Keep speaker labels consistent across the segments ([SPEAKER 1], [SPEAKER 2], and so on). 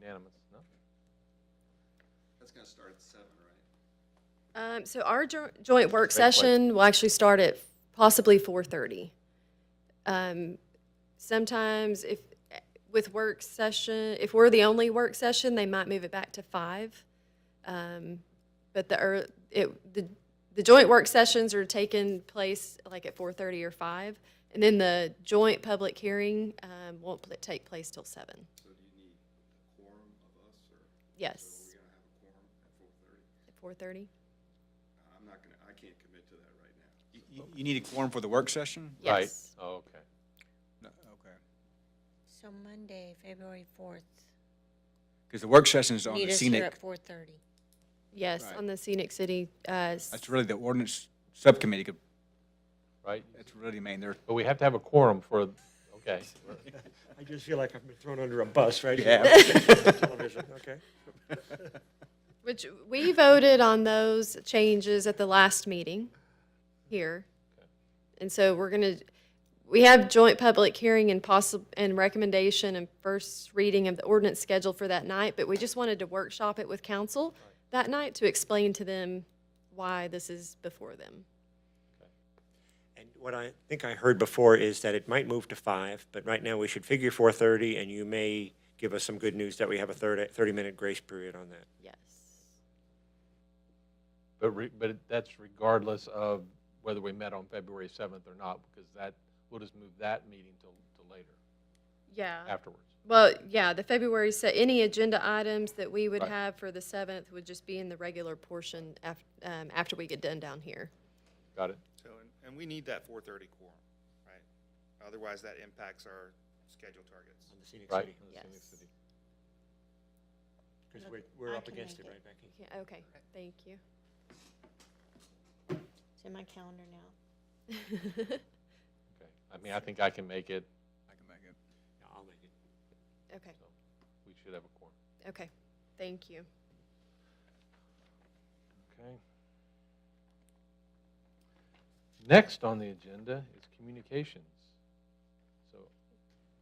[SPEAKER 1] Unanimous, no?
[SPEAKER 2] That's gonna start at seven, right?
[SPEAKER 3] Um, so our jo- joint work
[SPEAKER 1] Great place.
[SPEAKER 3] session will actually start at possibly four thirty. Um, sometimes if, with work session, if we're the only work session, they might move it back to five. Um, but the, ear- it, the, the joint work sessions are taking place like at four thirty or five. And then the joint public hearing, um, won't pl- take place till seven.
[SPEAKER 2] So do you need a quorum of us, or are we
[SPEAKER 3] Yes,
[SPEAKER 2] gonna have a quorum at four thirty?
[SPEAKER 3] at four thirty.
[SPEAKER 2] I'm not gonna, I can't commit to that right now.
[SPEAKER 4] You- You you need a quorum for the work session?
[SPEAKER 1] Right.
[SPEAKER 3] Yes.
[SPEAKER 1] Oh, Okay.
[SPEAKER 4] No, Okay.
[SPEAKER 5] So Monday, February fourth,
[SPEAKER 4] Because the work session is on
[SPEAKER 5] meet
[SPEAKER 4] the
[SPEAKER 5] us here
[SPEAKER 4] scenic,
[SPEAKER 5] at four thirty.
[SPEAKER 3] Yes,
[SPEAKER 4] Right.
[SPEAKER 3] on the scenic city, uh, s-
[SPEAKER 4] that's really the ordinance subcommittee, could-
[SPEAKER 1] Right,
[SPEAKER 4] that's really main, they're,
[SPEAKER 1] but we have to have a quorum for, okay.
[SPEAKER 6] I just feel like I've been thrown under a bus right
[SPEAKER 4] You
[SPEAKER 6] here. Television, okay?
[SPEAKER 3] Which we voted on those changes at the last meeting here. And so we're gonna, we have joint public hearing and possible, and recommendation and first reading of the ordinance scheduled for that night, but we just wanted to workshop it with council that night to explain to them why this is before them.
[SPEAKER 6] And what I think I heard before is that it might move to five, but right now we should figure four thirty, and you may give us some good news that we have a thirty, thirty-minute grace period on that.
[SPEAKER 3] Yes.
[SPEAKER 1] But, re- but that's regardless of whether we met on February 7th or not, because that, we'll just move that meeting till, till later,
[SPEAKER 3] Yeah.
[SPEAKER 1] afterwards.
[SPEAKER 3] Well, yeah, the February, se- any agenda items that we would
[SPEAKER 1] Right.
[SPEAKER 3] have for the seventh would just be in the regular portion af, um, after we get done down here.
[SPEAKER 1] Got it?
[SPEAKER 7] So, and, and we need that four thirty quorum, right? Otherwise, that impacts our schedule targets.
[SPEAKER 6] On the scenic
[SPEAKER 1] Right?
[SPEAKER 6] city,
[SPEAKER 3] Yes.
[SPEAKER 6] because we're, we're
[SPEAKER 5] I
[SPEAKER 6] up
[SPEAKER 5] can
[SPEAKER 6] against it,
[SPEAKER 5] make it.
[SPEAKER 6] right, Becky?
[SPEAKER 3] Yeah, okay, thank you.
[SPEAKER 5] It's in my calendar now.
[SPEAKER 1] Okay. I mean, I think I can make it,
[SPEAKER 4] I can make it.
[SPEAKER 6] Yeah, I'll make it.
[SPEAKER 3] Okay,
[SPEAKER 1] we should have a quorum.
[SPEAKER 3] okay, thank you.
[SPEAKER 1] Okay. Next on the agenda is communications. So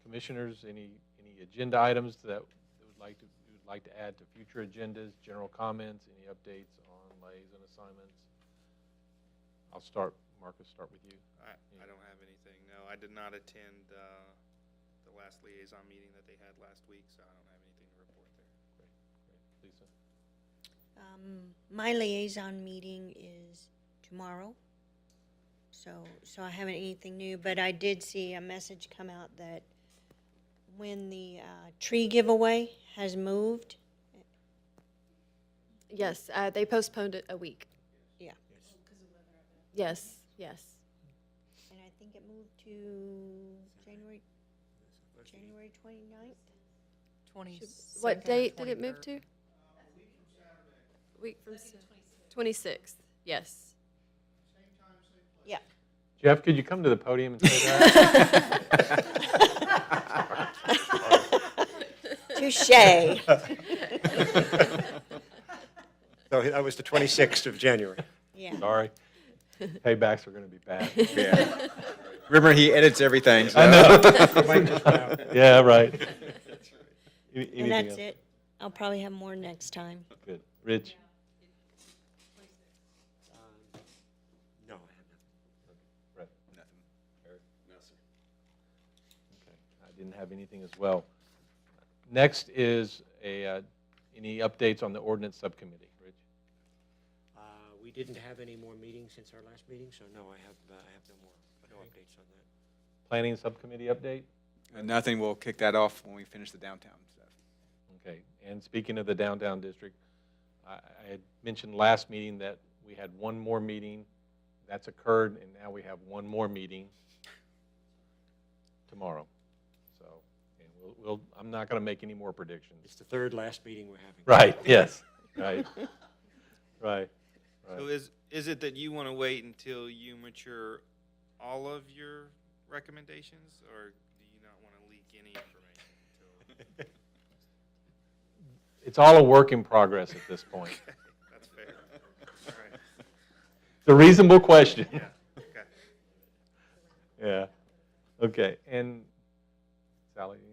[SPEAKER 1] commissioners, any, any agenda items that you would like to, you would like to add to future agendas, general comments, any updates on lays and assignments? I'll start, Marcus, start with you.
[SPEAKER 7] I, I don't have anything, no, I did not attend, uh, the last liaison meeting that they had last week, so I don't have anything to report
[SPEAKER 1] Lisa?
[SPEAKER 7] there.
[SPEAKER 5] Um, my liaison meeting is tomorrow. So, so I haven't anything new, but I did see a message come out that when the, uh, tree giveaway has moved,
[SPEAKER 3] Yes, uh, they postponed it a week.
[SPEAKER 5] yeah.
[SPEAKER 3] Yes, yes.
[SPEAKER 5] And I think it moved to January, January twenty-ninth?
[SPEAKER 8] Twenty.
[SPEAKER 3] What date did it move to? Week from Saturday. Twenty-sixth, yes.
[SPEAKER 5] Yeah.
[SPEAKER 1] Jeff, could you come to the podium and say that?
[SPEAKER 5] Touche.
[SPEAKER 6] So that was the twenty-sixth of January.
[SPEAKER 5] Yeah.
[SPEAKER 1] Sorry. Paybacks are gonna be bad.
[SPEAKER 4] Yeah. Remember, he edits everything, so.
[SPEAKER 1] Yeah, right. Any-
[SPEAKER 5] And
[SPEAKER 1] anything
[SPEAKER 5] that's
[SPEAKER 1] else?
[SPEAKER 5] it. I'll probably have more next time.
[SPEAKER 1] Good. Rich?
[SPEAKER 6] Uh, No, I have nothing.
[SPEAKER 1] Brett?
[SPEAKER 2] No, sir.
[SPEAKER 1] Okay, I didn't have anything as well. Next is a, uh, any updates on the ordinance subcommittee, Rich?
[SPEAKER 6] Uh, we didn't have any more meetings since our last meeting, so no, I have, uh, I have no more, no updates on that.
[SPEAKER 1] Planning subcommittee update?
[SPEAKER 4] And Nothing, we'll kick that off when we finish the downtown stuff.
[SPEAKER 1] Okay, and speaking of the downtown district, I, I had mentioned last meeting that we had one more meeting. That's occurred, and now we have one more meeting tomorrow. So, and we'll, we'll, I'm not gonna make any more predictions.
[SPEAKER 6] It's the third last meeting we're having.
[SPEAKER 1] Right, yes, right, right.
[SPEAKER 7] So is, is it that you wanna wait until you mature all of your recommendations, or do you not wanna leak any information until?
[SPEAKER 1] It's all a work in progress at this point.
[SPEAKER 7] That's fair. All right,
[SPEAKER 1] It's a reasonable question.
[SPEAKER 7] okay.
[SPEAKER 1] Yeah. Okay, and Sally,